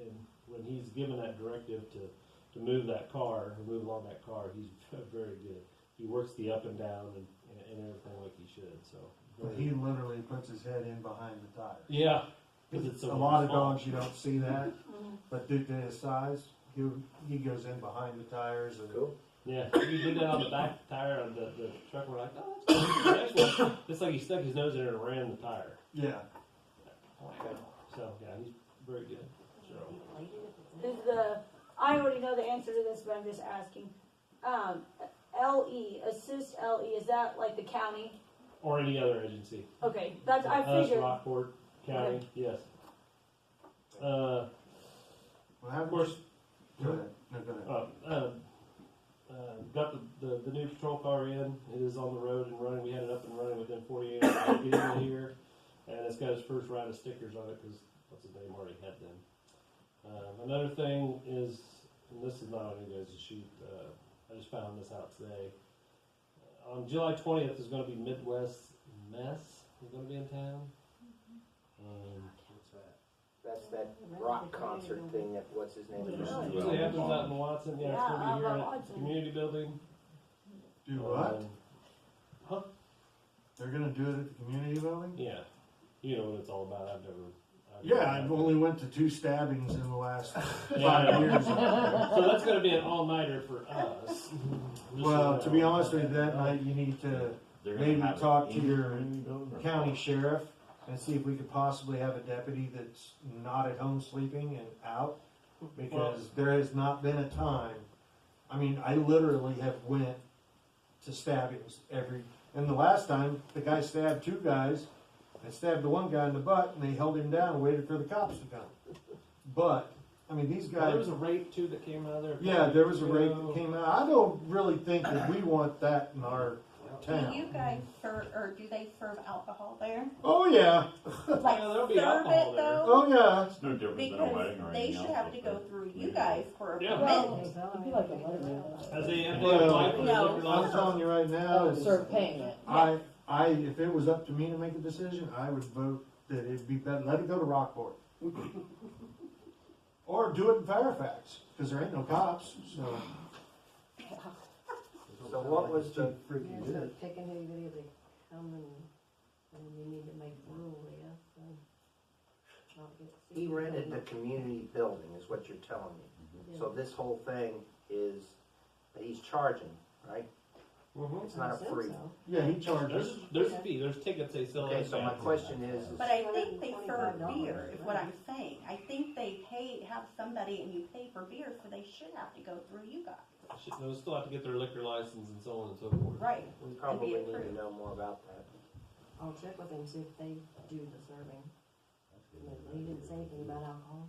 and when he's given that directive to, to move that car, or move along that car, he's very good. He works the up and down and, and, and everything like he should. So But he literally puts his head in behind the tire. yeah, because it's a lot of small. dogs you don't see that, but due to his size, he he goes in behind the tires and Cool. Yeah, he did that on the back tire of the, the truck. We're like, oh, that's cool. Next one. It's like he stuck his nose in it and ran the tire. yeah. Oh, So yeah, he's very good. So Is the, I already know the answer to this, but I'm just asking. Um, LE, assist LE, is that like the county? or any other agency. Okay, that's, I Us, figured, Rockport County, yes. Uh, Well, how of course, Go ahead. No, go ahead. Uh, um, uh, got the, the, the new patrol car in. It is on the road and running. We had it up and running within 48 hours of getting it here. And it's got its first round of stickers on it because what's his name already had them. Um, another thing is, and this is not on you guys' sheet, uh, I just found this out today. Uh, On July 20th is going to be Midwest Mess. We're going to be in town. Um, What's that? That's that rock concert thing that what's his name? Yeah. usually happens out in Watson. Yeah, it's going to Yeah, be here out by at the Watson. community building. Do what? Um, Uh, They're gonna do it at the community building? Yeah, you know what it's all about. I've never. I've Yeah, never- I've only went to two stabbings in the last Yeah, I know. five years. so that's going to be an all nighter for us. Well, to be honest with you, that night you need to They're gonna maybe have it talk to in the your community building or- county sheriff and see if we could possibly have a deputy that's not at home sleeping and out because there has not been a time. I mean, I literally have went to stabbings every, and the last time the guy stabbed two guys and stabbed the one guy in the butt and they held him down and waited for the cops to come. But I mean, these There guys. was a rape too that came out of there. Yeah, there was a You rape know, that came out. I don't really think that we want that in our Do you town. guys serve, or do they serve alcohol there? Oh yeah, Like there'll serve be it alcohol there. though? oh yeah. It's no different than a Because wedding or they anything should else, have to go but- through you guys for a Yeah. permit. It'd be like a letterman. As they have Well, applied for no. the liquor I'm license. telling you right now, Oh, is serve payment. I, I, if it was up to me to make a decision, I would vote that it'd be better, let it go to Rockport. Or do it in Fairfax, cause there ain't no cops, so. So what was the? There's no picking anybody, they come and, and you need to make a rule, yeah, so. I'll get- He rented the community building, is what you're telling me. Yeah. So this whole thing is he's charging, right? Mhm. It's not I a assume free. so. Yeah, he charges. There's there's a fee. There's tickets they sell. Okay, in so my advance. question is, is But I think they serve $125 beer, is what I'm saying. I think they pay, have somebody and you pay for beer, so they should have to go through you guys. Shit, they'll still have to get their liquor license and so on and so forth. Right. we probably need to approved. know more about that. I'll check with them, see if they do the serving. But He didn't say anything about alcohol.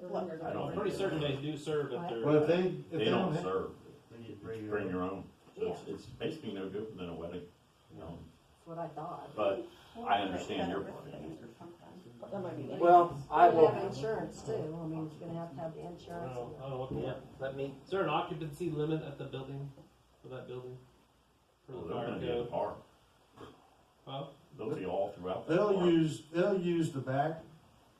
Look, I don't I'm think pretty certain they do serve at their. But if they, if They they don't, ha- don't serve, You bring your bring your own. So It's, Yeah. it's basically no different than a wedding, you know, That's what I thought. but Well, I understand your they're point. things or something. That might be. Well, I You will, have insurance too, I mean, you're gonna have to have the I don't insurance. know, I don't know what the- yeah, let me, Is there an occupancy limit at the building? For that building? For well, the they're fire gonna be in the code? park. Huh? They'll be all throughout the they'll park. use, they'll use the back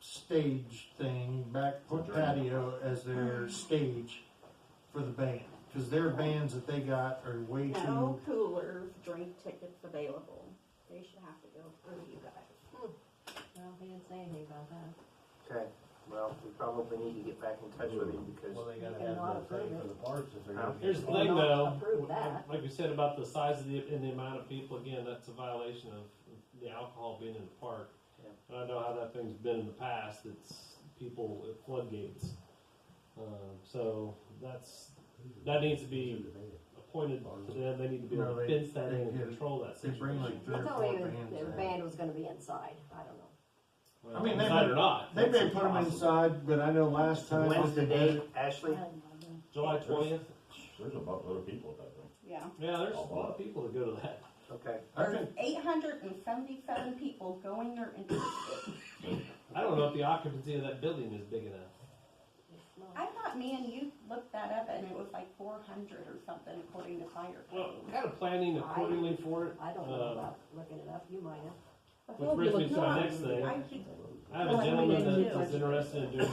stage thing, back patio as their stage for the band. Cause their bands that they got are way too, No coolers, drink tickets available. They should have to go through you guys. Well, he didn't say anything about that. okay, well, we probably need to get back in touch with him because, You cannot approve it. huh? Here's the Well, thing, not though. approve that. Like we said about the size of the and the amount of people, again, that's a violation of the alcohol being in the park. Yeah. And I know how that thing's been in the past. It's people at floodgates. Um, so that's that needs to be appointed to them. They need to be able No, to they- fence that they in and get- control that they situation. bring like three I or thought four even bands. their in. band was gonna be inside, I don't know. Well, I mean, they inside may- or not, They may that's put them possible. inside, but I know last time. When's the they date, did- Ashley? July twentieth. There's a buttload of people at that thing. Yeah. Yeah, there's a lot of people that go to that. Okay, I think, Eight hundred and seventy-seven people going there and I don't know if the occupancy of that building is big enough. It's not- I thought me and you looked that up and it was like four hundred or something according to fire. Well, kind of planning accordingly for it. I don't Uh, know about looking it up, you might have. Which brings me to my next thing. I keep I have a Well, I mean, gentleman they that do. is interested in doing